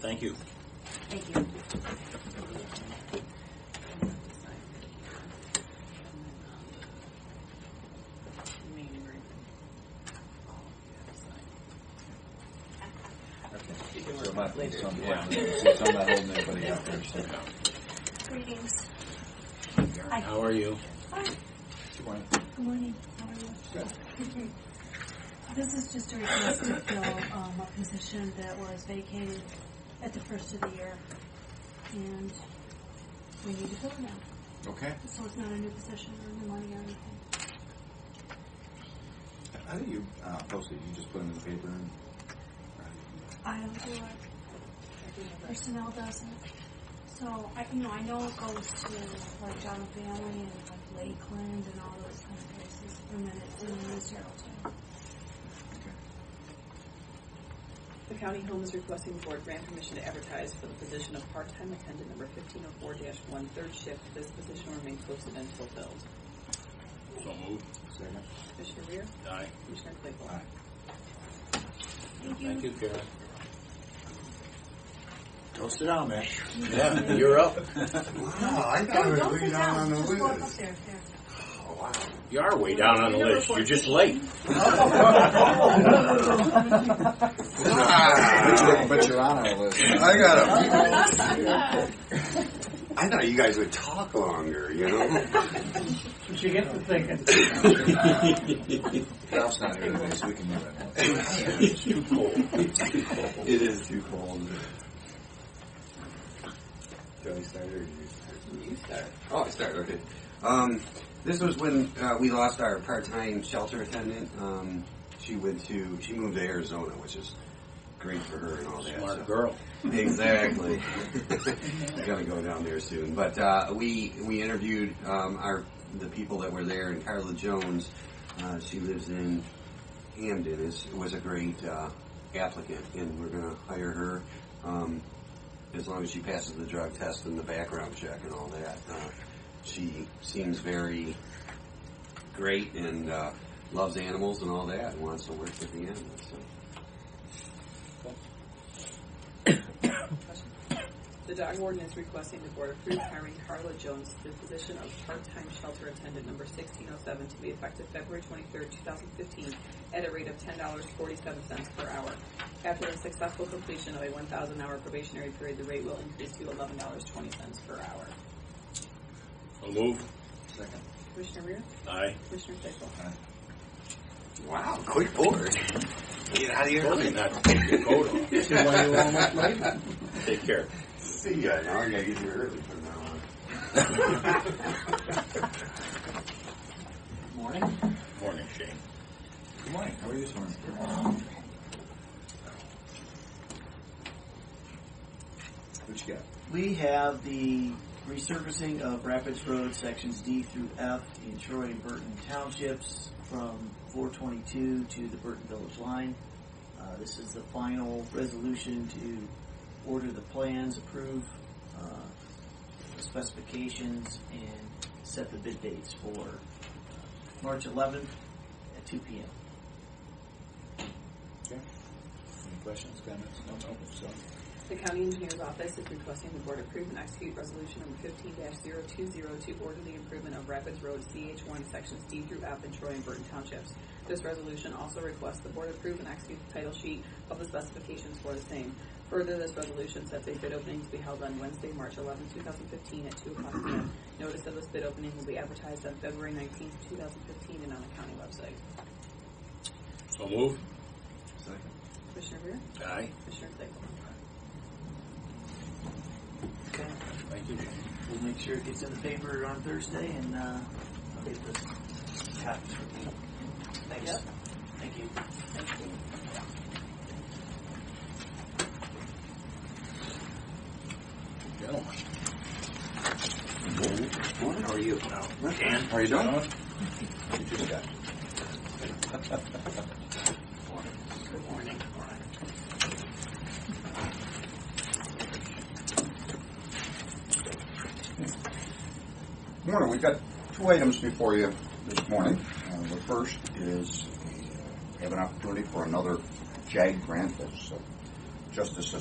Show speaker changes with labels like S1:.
S1: Thank you.
S2: Thank you.
S3: So my plate's on the bottom. It's on my holding everybody out there. so.
S2: Greetings.
S1: How are you?
S2: Good morning. How are you? This is just a request to fill um, a position that was vacated at the first of the year. And we need to fill it now.
S3: Okay.
S2: So it's not a new position or new money or anything.
S3: How do you uh, post it? You just put it in the paper and.
S2: I don't do it. Personnel doesn't. So I, you know, I know it goes to like John Family and like Lakeland and all those kind of places, and then it's in the news herald too.
S4: The county home is requesting the board grant permission to advertise for the position of part-time attendant number fifteen oh four dash one, third shift. This position will remain posted until filled.
S1: So moved.
S3: Second.
S4: Commissioner Rea,
S1: Aye.
S4: Commissioner Claypool.
S3: Aye.
S1: Thank you, Karen.
S3: Toast it down, man.
S1: Yeah, you're up.
S3: Wow, I
S2: Don't, don't sit down, just walk up there, there.
S1: You are way down on the list. You're just late.
S3: But you're, but you're on our list.
S5: I got a. I thought you guys would talk longer, you know?
S6: She gets to thinking.
S3: Ralph's not here today, so we can do it.
S1: It's too cold.
S3: It is too cold.
S5: Do I start or do you start?
S4: You start.
S5: Oh, I start, okay. Um, this was when uh, we lost our part time shelter attendant. Um, she went to, she moved to Arizona, which is great for her and all that. so-
S1: Smart girl.
S5: Exactly. I'm gonna go down there soon. But uh, we we interviewed um, our the people that were there, and Carla Jones. Uh, she lives in Hamden. Is was a great uh, applicant, and we're gonna hire her um, as long as she passes the drug test and the background check and all that. Uh, she seems very great and uh, loves animals and all that, and wants to work with the animals. So.
S4: Question? The dog warden is requesting the board approve hiring Carla Jones to the position of part-time shelter attendant number sixteen oh seven to be effective February twenty-third, two thousand fifteen, at a rate of ten dollars forty-seven cents per hour. After the successful completion of a one thousand hour probationary period, the rate will increase to eleven dollars twenty cents per hour.
S1: So moved.
S3: Second.
S4: Commissioner Rea,
S1: Aye.
S4: Commissioner Claypool.
S5: Wow, quick board. Get out of here
S1: Told you not to take your coat off. Take care.
S5: See ya. Now I gotta get here early from now on.
S3: Morning.
S1: Morning, Shane.
S3: Good morning. How are you this morning? What you got?
S6: We have the resurfacing of Rapids Road sections D through F in Troy and Burton Townships from 422 to the Burton Village line. Uh, this is the final resolution to order the plans, approve uh, the specifications, and set the bid dates for uh, March 11th at 2 p.m.
S3: Any questions, comments? No, no. So,
S4: The county engineer's office is requesting the board approve and execute resolution number fifteen 20 to order the improvement of Rapids Road CH one sections D through F in Troy and Burton Townships. This resolution also requests the board approve and execute the title sheet of the specifications for the same. Further, this resolution sets a bid opening to be held on Wednesday, March 11, thousand fifteen, at two o'clock p.m. Notice of this bid opening will be advertised on February nineteenth, two thousand fifteen, and on the county website.
S1: So moved.
S3: second.
S4: Commissioner Rea,
S1: Aye.
S4: Commissioner Claypool.
S6: Okay.
S1: Thank you, Shane.
S6: We'll make sure it gets in the paper on Thursday, and uh, I'll get the copies for you. Thanks.
S4: Yep.
S6: Thank you.
S1: Gentlemen.
S3: Morning. How are you?
S1: Dan?
S3: How are you doing? You just got.
S7: Morning, we've got two items before you this morning. Uh, The first is uh, have an opportunity for another JAG grant that's uh, Justice